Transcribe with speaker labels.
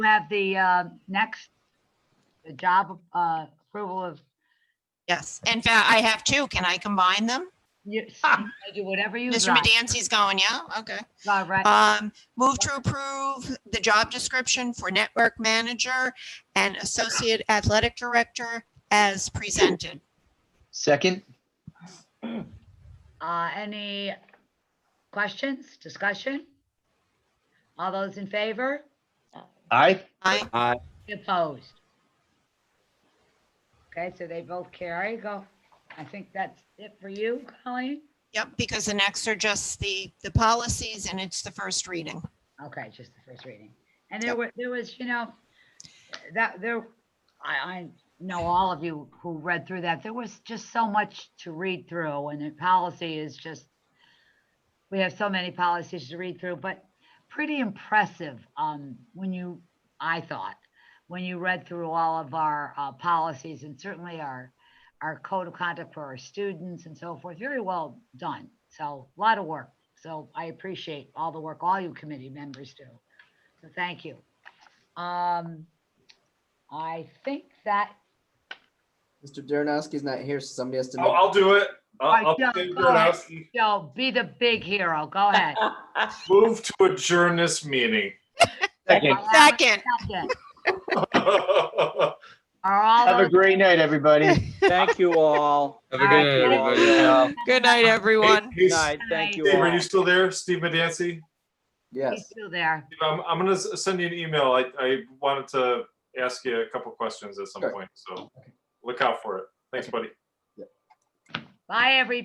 Speaker 1: have the uh, next, the job uh, approval of,
Speaker 2: Yes, in fact, I have two. Can I combine them?
Speaker 1: you do whatever you
Speaker 2: Mr.
Speaker 1: like.
Speaker 2: Medancy's going, yeah, okay.
Speaker 1: All right.
Speaker 2: Um, move to approve the job description for network manager and associate athletic director as presented.
Speaker 3: Second,
Speaker 1: Uh, Any questions, discussion? All those in favor?
Speaker 3: aye.
Speaker 2: I,
Speaker 1: Opposed? Okay, so they both carry. Go. I think that's it for you, Colleen?
Speaker 2: yep, because the next are just the, the policies and it's the first reading.
Speaker 1: Okay, just the first reading. And there were, there was, you know, that there, I, I know all of you who read through that, there was just so much to read through and the policy is just, we have so many policies to read through, but pretty impressive, um, when you, I thought, when you read through all of our, uh, policies and certainly our, our code of conduct for our students and so forth, very well done. So a lot of work. So I appreciate all the work all you committee members do. So thank you. Um, I think that,
Speaker 4: Mr. Darrenowski's not here, so somebody has to.
Speaker 5: Oh, I'll,
Speaker 4: make-
Speaker 5: I'll do it. Uh,
Speaker 1: Alright,
Speaker 5: I'll,
Speaker 1: Joe,
Speaker 5: I'll do
Speaker 1: go ahead.
Speaker 5: it.
Speaker 1: Joe, be the big hero. Go ahead.
Speaker 5: Move to adjourn this meeting.
Speaker 3: Second,
Speaker 2: Second,
Speaker 1: Second. Are all
Speaker 3: have a
Speaker 1: those,
Speaker 3: great night, everybody.
Speaker 6: Thank you all.
Speaker 7: Have
Speaker 1: All
Speaker 7: a
Speaker 1: right,
Speaker 7: good
Speaker 1: good
Speaker 7: night,
Speaker 6: night.
Speaker 7: everybody.
Speaker 2: good night, everyone.
Speaker 5: Hey, hey,
Speaker 6: Good night. Thank you
Speaker 5: Steve,
Speaker 6: all.
Speaker 5: are you still there, Steve Medancy?
Speaker 1: he's
Speaker 4: Yes.
Speaker 1: still there.
Speaker 5: I'm, I'm gonna s- send you an email. I, I wanted to ask you a couple questions at some
Speaker 4: Sure.
Speaker 5: point, so look out for it. Thanks, buddy.
Speaker 1: Bye, everybody.